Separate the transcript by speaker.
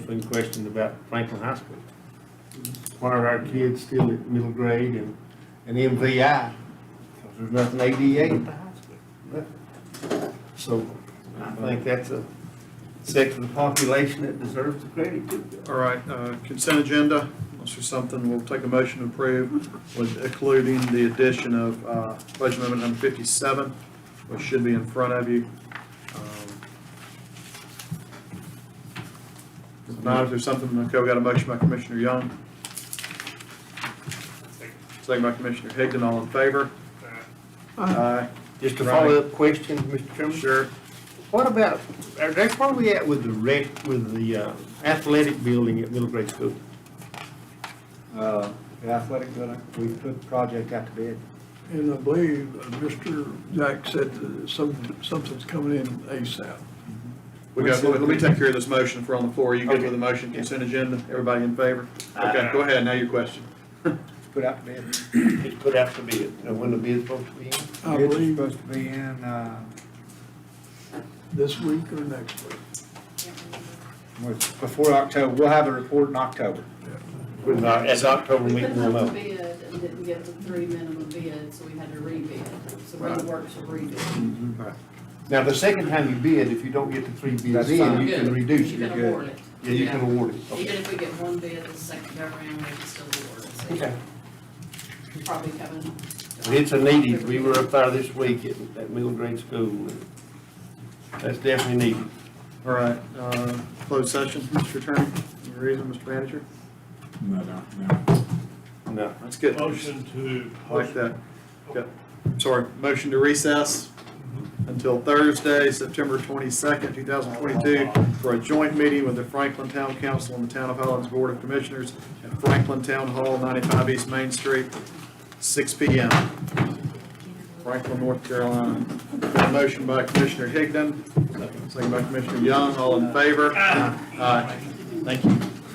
Speaker 1: been questioned about Franklin High School. Why are our kids still at middle grade and, and MVI? Because there's nothing ADA at the high school. So I think that's a section of the population that deserves the credit too.
Speaker 2: All right, uh, consent agenda, unless there's something, we'll take a motion to approve with including the addition of uh, budget amendment number 57, which should be in front of you. Um, If not, if there's something, okay, we got a motion by Commissioner Young. Second by Commissioner Higdon, all in favor? Aye.
Speaker 1: Just a follow-up question, Mr. Chairman?
Speaker 2: Sure.
Speaker 1: What about, uh, that's where we at with the rec, with the uh, athletic building at middle grade school?
Speaker 3: Uh, the athletic building, we put the project out to bid.
Speaker 4: And I believe uh, Mr. Jack said that some, something's coming in ASAP.
Speaker 2: We got, let me take care of this motion if we're on the floor. You good with the motion, consent agenda? Everybody in favor? Okay, go ahead, now your question.
Speaker 3: It's put out to bid.
Speaker 1: It's put out to bid, and when the bid's supposed to be in?
Speaker 4: I
Speaker 3: Bid's
Speaker 4: believe
Speaker 3: Supposed to be in, uh,
Speaker 4: this week or next week.
Speaker 3: with- before October, we'll have a report in October.
Speaker 1: With our, as October
Speaker 5: We
Speaker 1: meeting
Speaker 5: put out
Speaker 1: remote.
Speaker 5: the bid and didn't get the three minimum bids, so we had to rebid. So we
Speaker 2: Right.
Speaker 5: worked to rebid.
Speaker 4: Mm-hmm.
Speaker 1: Now, the second time you bid, if you don't get the three bids
Speaker 3: That's
Speaker 1: in,
Speaker 3: fine.
Speaker 1: you can
Speaker 5: Good.
Speaker 1: reduce
Speaker 5: You
Speaker 1: it.
Speaker 5: can award it.
Speaker 1: Yeah, you can award it.
Speaker 5: Even if we get one bid the second go around, we can still award it. So
Speaker 1: Okay.
Speaker 5: you're Probably coming.
Speaker 1: But it's a needed, we were up there this week at, at middle grade school, and that's definitely needed.
Speaker 2: All right, uh, closed session, Mr. Attorney, any reason, Mr. Manager?
Speaker 6: No, no, no.
Speaker 1: No.
Speaker 2: That's good.
Speaker 7: Motion to.
Speaker 2: Like that. Yep. Sorry, motion to recess until Thursday, September twenty-second, two thousand twenty-two, for a joint meeting with the Franklin Town Council and the Town of Highlands Board of Commissioners at Franklin Town Hall, ninety-five East Main Street, six P M. Franklin, North Carolina. Got a motion by Commissioner Higdon, second by Commissioner Young, all in favor? Aye. Thank you.